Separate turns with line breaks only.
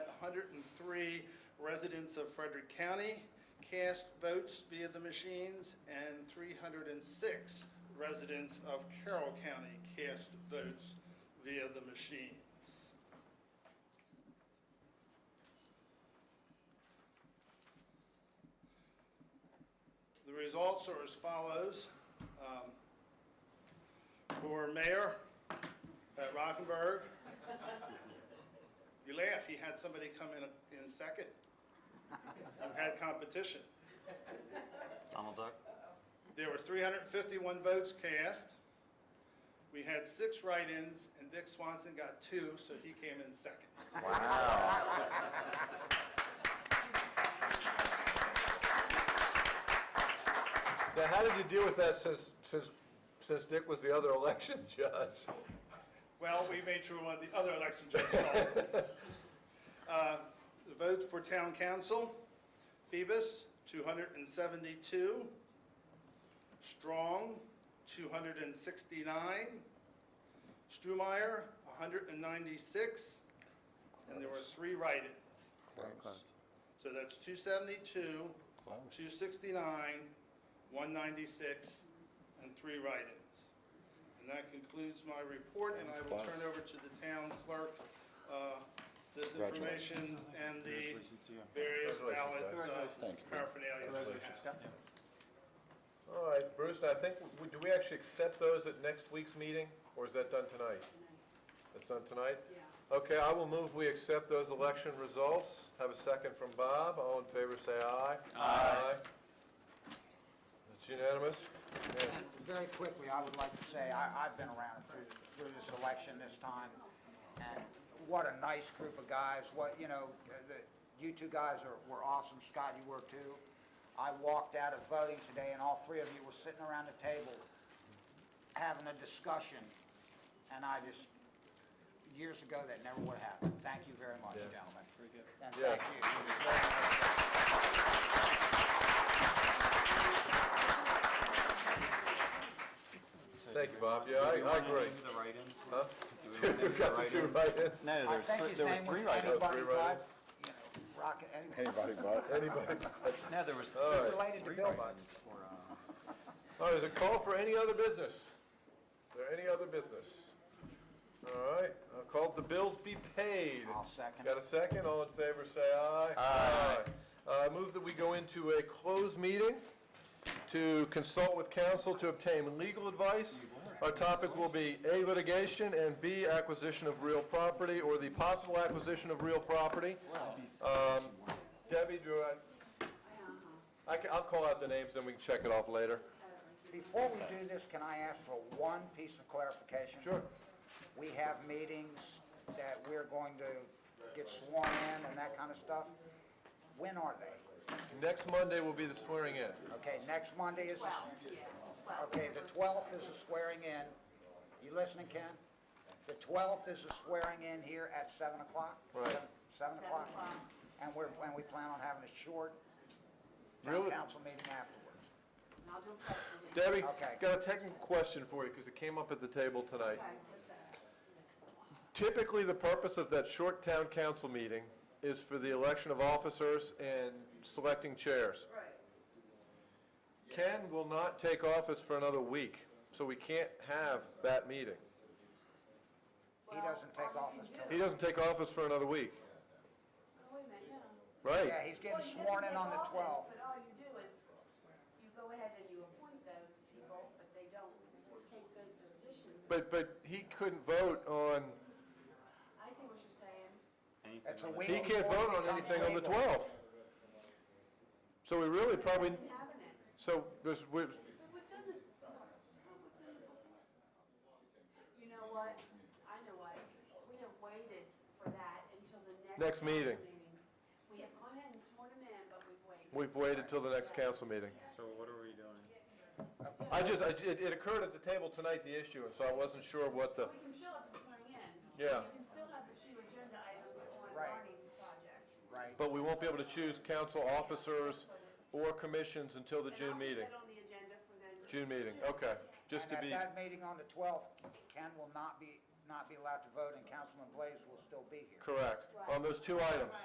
three residents of Frederick County cast votes via the machines, and 306 residents of Carroll County cast votes via the machines. The results are as follows. Um, For mayor at Rockenberg, you laugh, he had somebody come in, in second. You had competition.
Donald Duck.
There were 351 votes cast. We had six write-ins, and Dick Swanson got two, so he came in second.
Wow.
Now, how did you deal with that since, since, since Dick was the other election judge?
Well, we made sure one of the other election judges saw it. Uh, The vote for town council, Phoebus, 272. Strong, 269. Strumeyer, 196. And there were three write-ins.
Very close.
So that's 272, 269, 196, and three write-ins. And that concludes my report, and I will turn over to the town clerk uh, this information and the
Congratulations to you.
various ballot uh,
Thank you.
paraphernalia that we have.
All right, Bruce, and I think, w- do we actually accept those at next week's meeting, or is that done tonight? That's done tonight?
Yeah.
Okay, I will move we accept those election results. Have a second from Bob. All in favor, say aye. Aye. It's unanimous. Yeah.
Very quickly, I would like to say, I, I've been around through, through this election this time, and what a nice group of guys, what, you know, the, you two guys are, were awesome, Scott, you were too. I walked out of voting today, and all three of you were sitting around the table having a discussion, and I just, years ago, that never would have happened. Thank you very much, gentlemen. Very good. And
Yeah.
thank you.
Thank you, Bob. Yeah, I, I agree.
the write-ins?
Huh? We've got the two write-ins.
No,
I
there's,
think
th-
his
there
name
was
was
three write-ups.
anybody
Three write-ups.
but, you know, rocket, and
Anybody but?
Anybody?
No, there was.
All right.
related to
three
Bill Buck.
write-ins for, uh,
All right, is it call for any other business? Is there any other business? All right, I'll call the bills be paid.
I'll second.
Got a second? All in favor, say aye. Aye. Uh, I move that we go into a closed meeting to consult with counsel to obtain legal advice. Our topic will be A, litigation, and B, acquisition of real property, or the possible acquisition of real property. Um, Debbie, do I, I ca- I'll call out the names, then we can check it off later.
Before we do this, can I ask for one piece of clarification?
Sure.
We have meetings that we're going to get sworn in and that kind of stuff. When are they?
Next Monday will be the swearing in.
Okay, next Monday is,
Well, yeah, well.
okay, the 12th is the swearing in. You listening, Ken? The 12th is the swearing in here at 7 o'clock?
Right.
7 o'clock?
Seven o'clock.
And we're, and we plan on having a short town
Really?
council meeting afterwards.
And I'll do a press
Debbie,
release.
Okay.
got a technical question for you, because it came up at the table tonight.
Okay, what's that?
Typically, the purpose of that short town council meeting is for the election of officers and selecting chairs.
Right,
Ken will not take office for another week, so we can't have that meeting.
He doesn't take office till...
He doesn't take office for another week,
oh, wait a minute, no.
Yeah,
right?
he's getting
Well, you
sworn in
didn't
on the
take
12th.
office, But all you do is, you go ahead and you appoint those people, but they don't take those positions.
But, but he couldn't vote on,
I see what you're saying.
It's a week
he can't
before
vote
it
on
becomes
anything on the
legal.
12th. So we really probably,
Didn't happen it.
so there's, we're-
But we've done this before. Oh, we've done it before. You know what? I know what. We have waited for that until the next.
Next
council
meeting.
We have gone ahead and sworn them in, but we've waited.
we've waited till the next council meeting.
So what are we doing?
I just, I, it it occurred at the table tonight, the issue, and so I wasn't sure what the,
We can still have the swearing in.
Yeah.
You can still have the two agenda items on
Right.
Barney's project.
Right.
but we won't be able to choose council officers or commissions until the June meeting.
And I'll put that on the agenda for the.
June meeting, okay, just to
And
be,
at that meeting on the 12th, Ken will not be, not be allowed to vote, and Councilman Blaze will still be here.
correct, on those two items.